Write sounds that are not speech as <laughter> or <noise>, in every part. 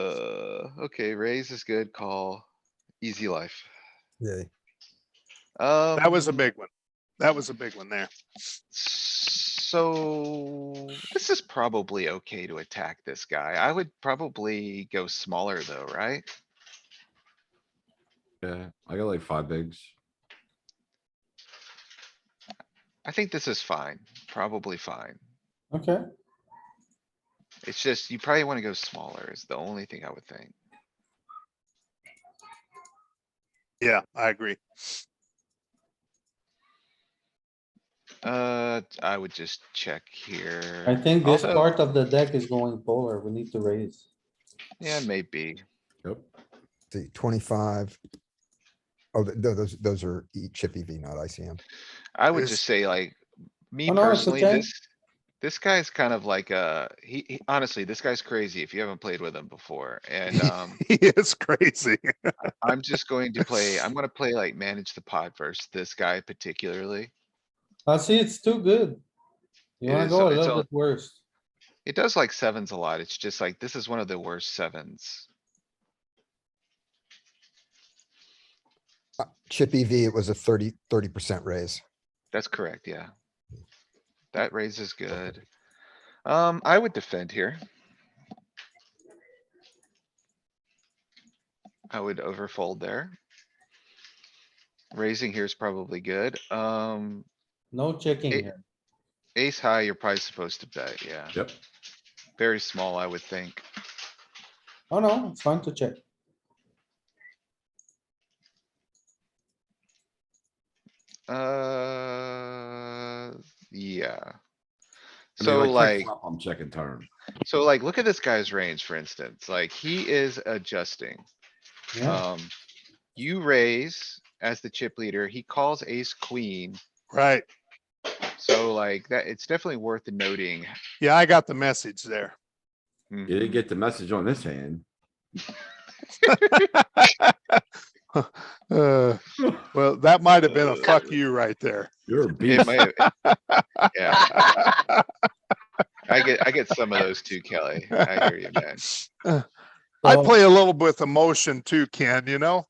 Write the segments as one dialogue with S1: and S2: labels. S1: Uh, okay, raise is good, call, easy life.
S2: Yay.
S1: Um.
S3: That was a big one. That was a big one there.
S1: So this is probably okay to attack this guy. I would probably go smaller though, right?
S4: Yeah, I got like five bigs.
S1: I think this is fine, probably fine.
S5: Okay,
S1: It's just, you probably wanna go smaller is the only thing I would think.
S3: Yeah, I agree. <laughs>
S1: Uh, I would just check
S5: I
S1: here.
S5: think this
S1: Also-
S5: part of the deck is going polar. We need to raise.
S1: Yeah, maybe.
S4: Yep.
S2: The twenty-five. Oh, th- th- those, those are E- chip EV, not ICM.
S1: I would
S3: Is-
S1: just say like, me
S5: Oh, no, it's
S1: personally,
S5: okay.
S1: this, this guy's kind of like, uh, he, he- honestly, this guy's crazy if you haven't played with him before.
S5: <laughs>
S1: And, um,
S3: He is crazy.
S1: I'm just going to play,
S5: <laughs>
S1: I'm gonna play like manage the pod versus this guy particularly.
S5: I Ah, see it's too good. You
S1: It
S5: wanna
S1: is,
S5: go a
S1: it's
S5: little
S1: all-
S5: bit worse.
S1: It does like sevens a lot. It's just like, this is one of the worst sevens.
S2: Uh, Chip EV, it was a 30 percent raise.
S1: That's correct, yeah. That raises good. Um, I would defend here. I would overfold there. Raising here is probably good. Um,
S5: No checking
S1: It-
S5: here.
S1: ace high, you're probably supposed to bet, yeah.
S4: Yep.
S1: Very small, I would think.
S5: Oh, no, it's fine to check.
S1: Uh, yeah.
S4: I mean,
S1: So like,
S4: check flop, I'm checking turn.
S1: so like, look at this guy's range, for instance, like he is adjusting.
S5: Yeah,
S1: Um, you raise as the chip leader, he calls ace queen,
S3: Right.
S1: so like that, it's definitely worth noting.
S3: Yeah, I got the message there.
S4: You
S1: Mhm.
S4: didn't get the message on this hand.
S3: Uh, Well, that might have been a fuck you right there. <laughs>
S4: You're
S1: <laughs>
S4: a
S1: It
S4: beast.
S1: might- Yeah, I get, I get some of those too, Kelly. I hear you, man.
S3: I
S5: So-
S3: play a little with emotion too, Ken, you know?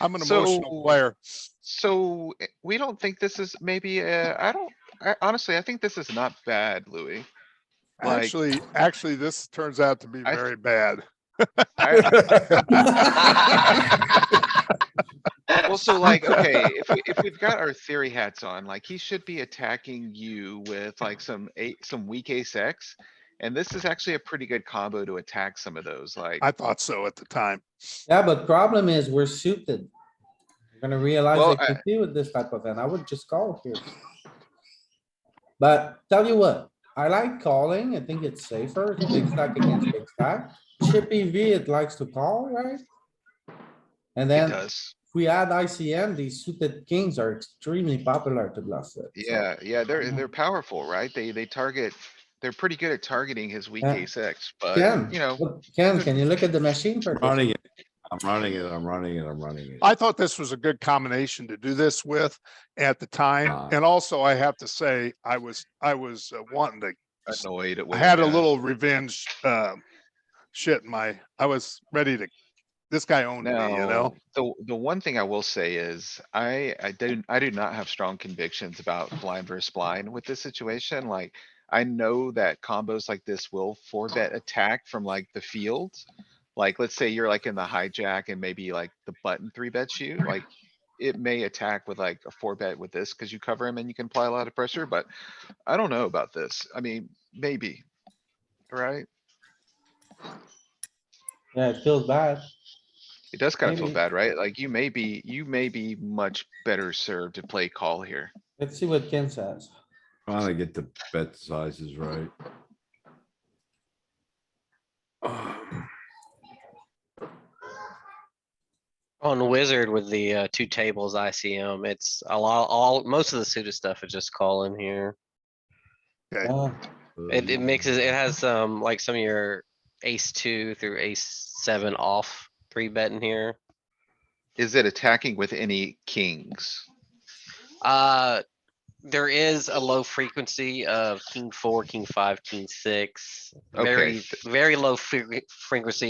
S3: I'm an
S1: So-
S3: emotional player.
S1: So eh, we don't think this is maybe, uh, I don't, I honestly, I think this is not bad, Louis. Like-
S3: Actually, actually, this turns out to be
S1: I-
S3: very bad.
S1: I- Well, so like, okay, if, we- if we've got our theory hats on, like he should be attacking you with like some eight, some weak ace X. And this is actually a pretty good combo to attack some of those, like,
S3: I thought so at the time.
S5: yeah, but problem is we're suited. You're gonna realize
S1: Well,
S5: that you do with this type of hand. I would just call here. But tell you what, I like calling. I think it's safer. It's Big stack against big stack. Chippy V, it likes to call, right? And
S1: it
S5: then if
S1: does.
S5: we add ICM, these suited kings are extremely popular to bluff with. so-
S1: Yeah, yeah, they're, they're powerful, right? They, they target, they're pretty good at targeting his weak
S5: Yeah.
S1: ace X, but
S5: Ken,
S1: you know,
S5: look, Ken, can you look at the machine? for a second?
S4: Running it. I'm running it. I'm running it. I'm running it.
S3: I thought this was a good combination to do this with at the
S4: Ah.
S1: Uh.
S3: time. And also I have to say, I was, I was uh, wanting to
S1: annoyed. at
S3: I
S1: what
S3: had a
S1: yeah.
S3: little revenge, uh, shit in my, I was ready to, this guy owned me, you know?
S1: Now, the, the one thing I will say is I, I don't, I do not have strong convictions about blind versus blind with this situation. Like, I know that combos like this will four bet attack from like the field. Like, let's say you're like in the hijack and maybe like the button three bets you, like it may attack with like a four bet with this because you cover him and you can apply a lot of pressure, but I don't know about this. I mean, maybe, right?
S5: Yeah, it feels bad.
S1: It does kind of feel
S5: Maybe-
S1: bad, right? Like you may be, you may be much better served to play call here.
S5: Let's see what Ken says.
S4: Trying to get the bet sizes right.
S6: On Wizard with the uh, two tables ICM, it's a lot, all, most of the suited stuff is just calling here.
S3: Okay.
S5: Uh,
S6: It,
S4: Mm-hmm.
S6: it mixes, it has um, like some of your ace two through ace seven off three betting here.
S1: Is it attacking with any kings?
S6: Uh, there is a low frequency of king four, king five, king six.
S1: Okay,
S6: Very,
S1: th-
S6: very low fre- frequency